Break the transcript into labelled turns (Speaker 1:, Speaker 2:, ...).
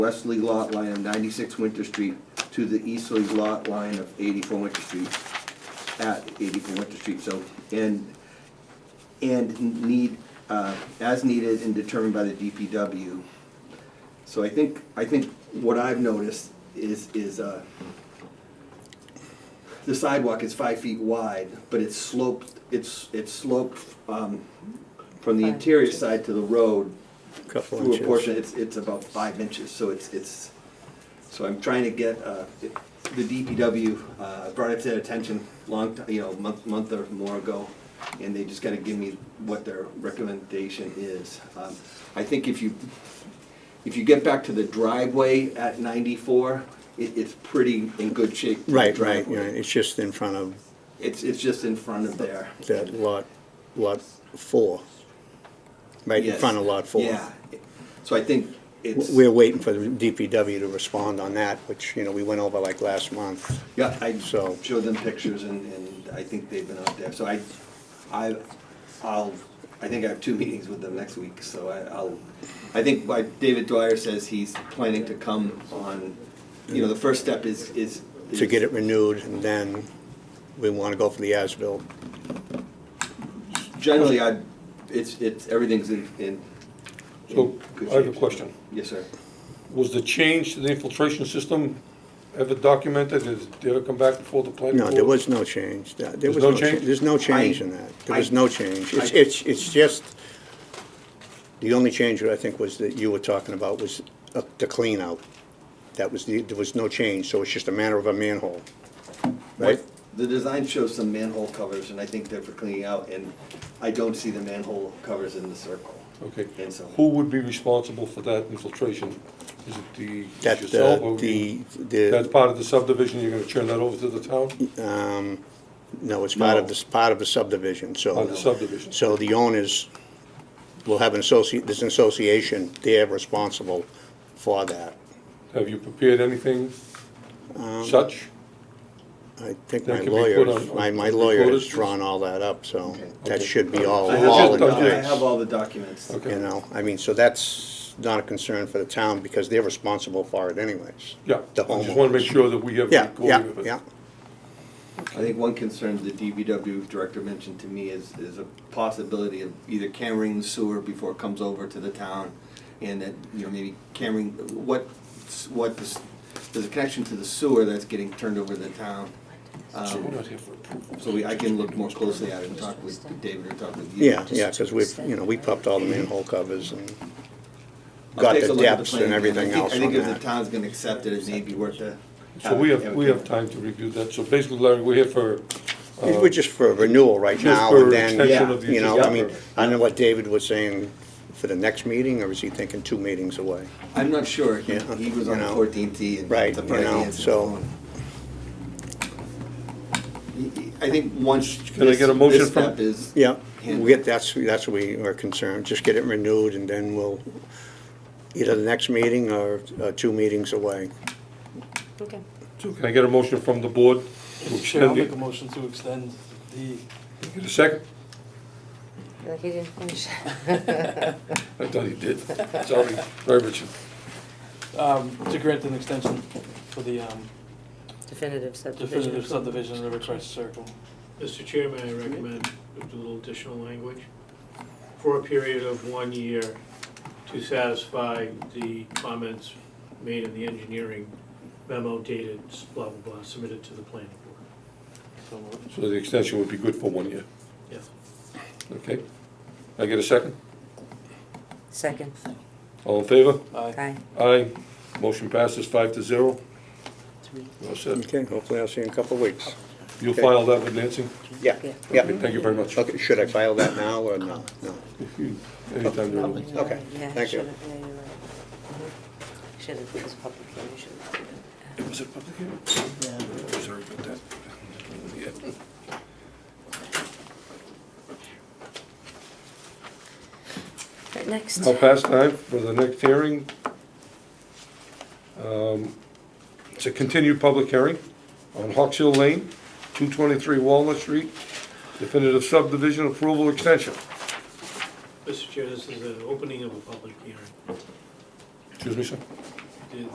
Speaker 1: westerly lot line of ninety-six Winter Street to the easterly lot line of eighty-four Winter Street, at eighty-four Winter Street, so, and, and need, uh, as needed and determined by the DPW. So I think, I think what I've noticed is, is, uh, the sidewalk is five feet wide, but it's sloped, it's, it's sloped, um, from the
Speaker 2: Five
Speaker 1: interior
Speaker 2: inches.
Speaker 1: side to the road
Speaker 3: Couple
Speaker 1: through a
Speaker 3: inches.
Speaker 1: portion, it's, it's about five inches, so it's, it's, so I'm trying to get, uh, it- the DPW, uh, brought it to their attention long, ti- you know, month, month or more ago, and they just gotta give me what their recommendation is. Um, I think if you, if you get back to the driveway at ninety-four, it, it's pretty in good shape.
Speaker 3: Right, right,
Speaker 1: driveway.
Speaker 3: yeah, it's just in front of
Speaker 1: It's, it's just in front of there.
Speaker 3: that lot, lot four. Right in
Speaker 1: Yes.
Speaker 3: front of lot four.
Speaker 1: Yeah, so I think it's.
Speaker 3: W- We're waiting for the DPW to respond on that, which, you know, we went over like last month.
Speaker 1: Yeah, I
Speaker 3: So-
Speaker 1: showed them pictures and, and I think they've been out there, so I, I, I'll, I think I have two meetings with them next week, so I, I'll, I think by, David Dwyer says he's planning to come on, you know, the first step is, is.
Speaker 3: To get it renewed, and then we wanna go for the as-built.
Speaker 1: Generally, I, it's, it's, everything's in, in. in
Speaker 4: So,
Speaker 1: good
Speaker 4: I have a
Speaker 1: shape.
Speaker 4: question.
Speaker 1: Yes, sir.
Speaker 4: Was the change to the infiltration system ever documented? Did did it ever come back before the planning
Speaker 3: No,
Speaker 4: board?
Speaker 3: there was no change. There there
Speaker 4: There's
Speaker 3: was
Speaker 4: no
Speaker 3: no cha-
Speaker 4: change?
Speaker 3: There's no change in that. There was no change. It's, it's, it's just, the only change that I think was that you were talking about was uh, the clean out. That was the, there was no change, so it's just a matter of a manhole, right?
Speaker 1: The design shows some manhole covers and I think they're for cleaning out and I don't see the manhole covers in the circle.
Speaker 4: Okay.
Speaker 1: And so-
Speaker 4: Who would be responsible for that infiltration? Is it the,
Speaker 3: That,
Speaker 4: is
Speaker 3: uh,
Speaker 4: yourself? or
Speaker 3: the, uh,
Speaker 4: you- That's
Speaker 3: the,
Speaker 4: part of the subdivision, you're gonna turn that over to the town?
Speaker 3: um, no, it's part of this, part of the subdivision,
Speaker 4: Part of the
Speaker 3: so.
Speaker 4: subdivision?
Speaker 3: So the owners will have an associate, there's an association, they're responsible for that. Um,
Speaker 4: Have you prepared anything such?
Speaker 3: I think
Speaker 4: That
Speaker 3: my
Speaker 4: can be put
Speaker 3: lawyer,
Speaker 4: on-
Speaker 3: my, my
Speaker 4: on
Speaker 3: lawyer has
Speaker 4: recorded.
Speaker 3: drawn all that up, so
Speaker 1: Okay.
Speaker 3: that
Speaker 4: Okay.
Speaker 3: should be all,
Speaker 1: I have
Speaker 3: Oh, all
Speaker 1: all
Speaker 3: in
Speaker 1: the, doc- I
Speaker 3: place.
Speaker 1: have all the documents.
Speaker 4: Okay.
Speaker 3: You know, I mean, so that's not a concern for the town because they're responsible for it anyways.
Speaker 4: Yeah,
Speaker 3: The
Speaker 4: I just wanna make
Speaker 3: homeowners.
Speaker 4: sure that we have
Speaker 3: Yeah,
Speaker 4: recording
Speaker 3: yeah,
Speaker 4: of it.
Speaker 3: yeah.
Speaker 1: I think one concern the DBW director mentioned to me is, is a possibility of either cammering the sewer before it comes over to the town, and that, you know, maybe cammering, what, what, the s- there's a connection to the sewer that's getting turned over to the town.
Speaker 4: So we're
Speaker 1: Um,
Speaker 4: not here for approval.
Speaker 1: So we, I can look more closely at it and talk with David or talk with you.
Speaker 3: Yeah, yeah, because we've, you know, we popped all the manhole covers and
Speaker 1: I'll
Speaker 3: got
Speaker 1: take a
Speaker 3: the
Speaker 1: look at
Speaker 3: depths
Speaker 1: plan again.
Speaker 3: and
Speaker 1: I
Speaker 3: everything
Speaker 1: think-
Speaker 3: else
Speaker 1: I
Speaker 3: on
Speaker 1: think if the
Speaker 3: that.
Speaker 1: town's gonna accept it, it may be worth it.
Speaker 4: So we have, we have time to review that. So basically, Larry, we're here for, uh,
Speaker 3: We're just for renewal right
Speaker 4: Just
Speaker 3: now
Speaker 4: for
Speaker 3: and then,
Speaker 4: extension
Speaker 1: Yeah.
Speaker 4: of the
Speaker 3: you know, I
Speaker 4: existing
Speaker 3: mean,
Speaker 4: permit.
Speaker 3: I know what David was saying for the next meeting, or is he thinking two meetings away?
Speaker 1: I'm not sure, he,
Speaker 3: Yeah,
Speaker 1: he was
Speaker 3: you
Speaker 1: on the
Speaker 3: know.
Speaker 1: fourteenth tee and.
Speaker 3: Right,
Speaker 1: the
Speaker 3: you
Speaker 1: Friday
Speaker 3: know,
Speaker 1: answer was
Speaker 3: so-
Speaker 1: on. I think once.
Speaker 4: Can I get a
Speaker 1: this-
Speaker 4: motion
Speaker 1: this
Speaker 4: from-
Speaker 1: step is.
Speaker 3: Yeah,
Speaker 1: handled.
Speaker 3: we get, that's, that's what we are concerned, just get it renewed and then we'll, either the next meeting or uh, two meetings away.
Speaker 2: Okay.
Speaker 4: can I get a motion from the board to
Speaker 5: Mr. Chair, I'll
Speaker 4: extend
Speaker 5: make
Speaker 4: it?
Speaker 5: a motion to extend the,
Speaker 4: Get a second?
Speaker 2: Like he didn't finish.
Speaker 4: I thought he did. Sorry, Sorry, Richard.
Speaker 5: um, to grant an extension for the um,
Speaker 2: Definitive subdivision.
Speaker 3: dus,
Speaker 5: definitive subdivision of River Crest Circle.
Speaker 6: Mr. Chairman, I recommend a little additional language for a period of one year to satisfy the comments made in the engineering memo dated blah, blah, blah, submitted to the planning board.
Speaker 5: So moved.
Speaker 4: So the extension would be good for one year,
Speaker 6: Yes.
Speaker 4: okay? I get a second?
Speaker 2: Second.
Speaker 4: All in favor?
Speaker 5: Aye.
Speaker 2: Aye.
Speaker 4: Aye. Motion passes five to zero.
Speaker 2: Three.
Speaker 4: Well said.
Speaker 3: Okay, hopefully I'll see you in a couple of weeks.
Speaker 4: You'll
Speaker 3: Mm. Okay.
Speaker 4: file that with Nancy?
Speaker 3: Yeah,
Speaker 2: Yeah.
Speaker 3: yeah.
Speaker 4: Thank you very much.
Speaker 3: Okay, should I file that now or no? No.
Speaker 4: Anytime you're ready.
Speaker 3: Okay,
Speaker 2: Yeah,
Speaker 3: thank you.
Speaker 2: should've- yeah, you're right. Mhm. Should've, it was public hearing, should've done it.
Speaker 4: Was it public hearing? Was there a good time? Yeah.
Speaker 2: Right, next.
Speaker 4: Now past time for the next hearing. Um, It's a continued public hearing on Hawks Hill Lane, 223 Walnut Street, definitive subdivision approval extension.
Speaker 6: Mr. Chair, this is an opening of a public hearing.
Speaker 4: Excuse me, sir?